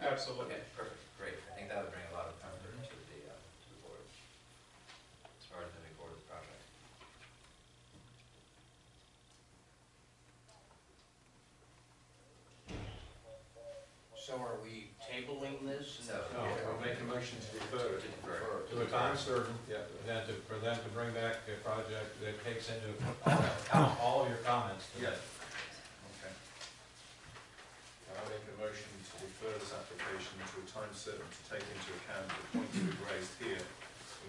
absolutely. Okay, perfect, great. I think that would bring a lot of comfort to the, uh, to the board, as far as moving forward with the project. So are we tabling this? So, No, I'll make a motion to Oh, defer to it defer. to a time certain, yeah, for them to, for them to bring back a project that takes into account all your comments. Yes. Okay. I make a motion to defer this application to a time certain to take into account the points we've raised here,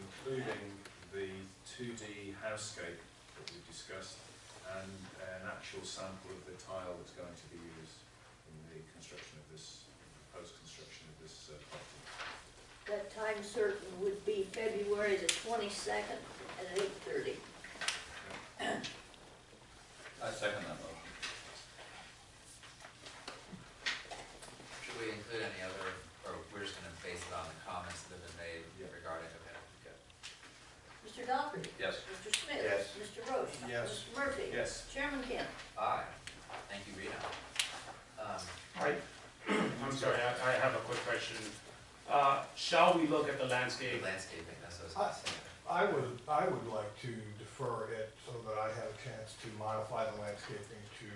including the two D housescape that we discussed and an actual sample of the tile that's going to be used in the construction of this, proposed construction of this uh, property. That time certain would be February the twenty-second at eight thirty. I second that motion. Should we include any other, or we're just gonna base it on the comments that have been made Yeah. regarding, okay, good. Mr. Dougherty? Yes. Mr. Smith? Yes. Mr. Roach? Yes. Mr. Murphy? Yes. Chairman Kent? Aye, thank you, Rita. Um, I, I'm sorry, I, I have a quick question. Uh, shall we look at the landscape? landscaping, that's what I was gonna say. I would, I would like to defer it so that I have a chance to modify the landscaping to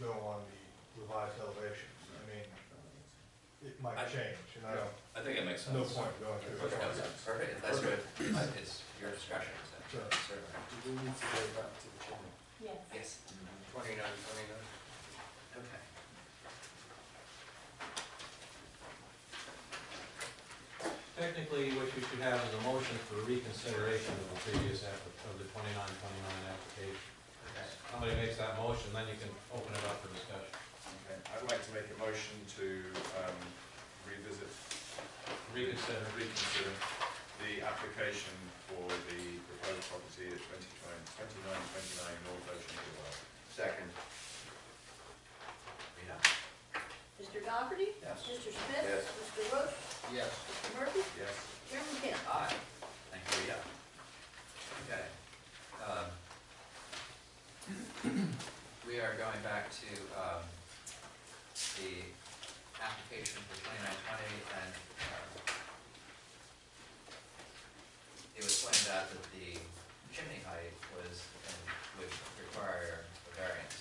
go on the revised elevations. I mean, it might change, and I don't, I think it makes sense. no point going through No, it. Perfect, that's good, it's your discretion, so, Sure. certainly. Do we need to go back to the chimney? Yes. Yes, Twenty-nine, twenty-nine. okay. Technically, what you should have is a motion for reconsideration of the previous, app- of the twenty-nine, twenty-nine application. Okay. Somebody makes that motion, then you can open it up for discussion. Okay, I'd like to make a motion to um, revisit Reconsider. reconsider the application for the proposed property at 29 2929 North Ocean Boulevard. Second. Rita, Mr. Dougherty? Yes. Mr. Smith? Yes. Mr. Roach? Yes. Mr. Murphy? Yes? Chairman Kent? aye, thank you, Rita. Okay. um, We are going back to, um, the application for twenty-nine twenty and, um, it was pointed out that the chimney height was, and would require a variance.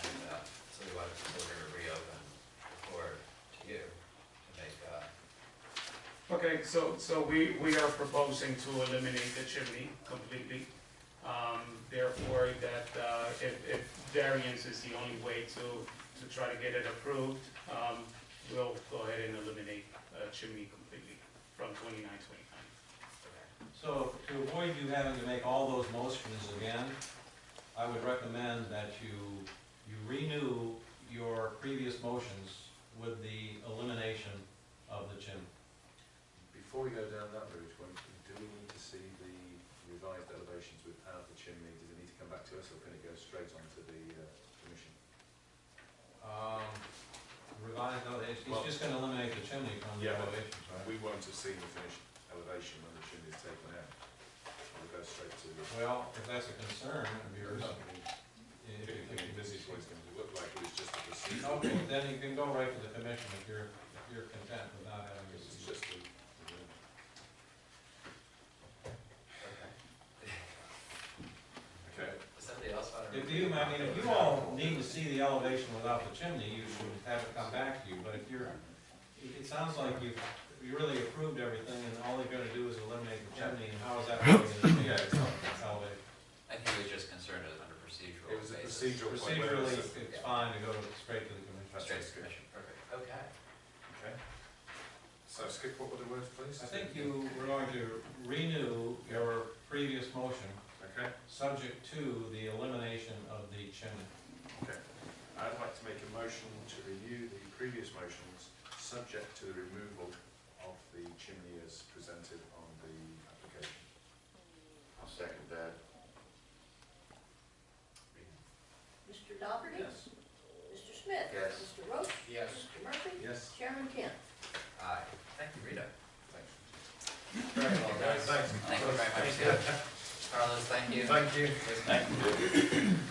And, uh, so we wanted to sort of reopen the floor to you to make, uh, Okay, so, so we, we are proposing to eliminate the chimney completely. Um, therefore, that, uh, if, if variance is the only way to, to try to get it approved, um, we'll go ahead and eliminate, uh, chimney completely from twenty-nine, twenty-nine. okay. So to avoid you having to make all those motions again, I would recommend that you, you renew your previous motions with the elimination of the chimney. Before we go down that route, when- do we need to see the revised elevations without the chimney? Does it need to come back to us, or can it go straight on to the uh, commission? Um, Revised, no, it's, it's just gonna eliminate the chimney from the Yeah. elevations, right? We won't have seen the finished elevation when the chimney is taken out. It'll go straight to the... Well, if that's a concern of yours, If if you you think think this is what it's going to look like, it was just a procedural... Okay, then you can go right to the commission if you're, if you're content without having This is this. just a... Okay. Does somebody else want to? If you, I mean, if you all need to see the elevation without the chimney, you should have it come back to you, but if you're, it- it sounds like you've, you really approved everything, and all they're gonna do is eliminate the chimney, and how is that really gonna change Yeah, it's not- the elevation? I think he was just concerned as under procedural It was a basis. procedural point. whether Procedurally, it's a- it's fine to go straight to the commission. Straight to the commission, perfect, okay. Okay. So skip what were the words, please? I think you were going to renew your previous motion, Okay, subject to the elimination of the chimney. okay. I'd like to make a motion to review the previous motions, subject to the removal of the chimney as presented on the application. I'll second that. Mr. Dougherty? Yes. Mr. Smith? Yes. Mr. Roach? Yes. Mr. Murphy? Yes? Chairman Kent? Aye, thank you, Rita. Thanks. Very well done. Thank you very much, yeah. Carlos, thank you. Thank you. Liz, Thank you.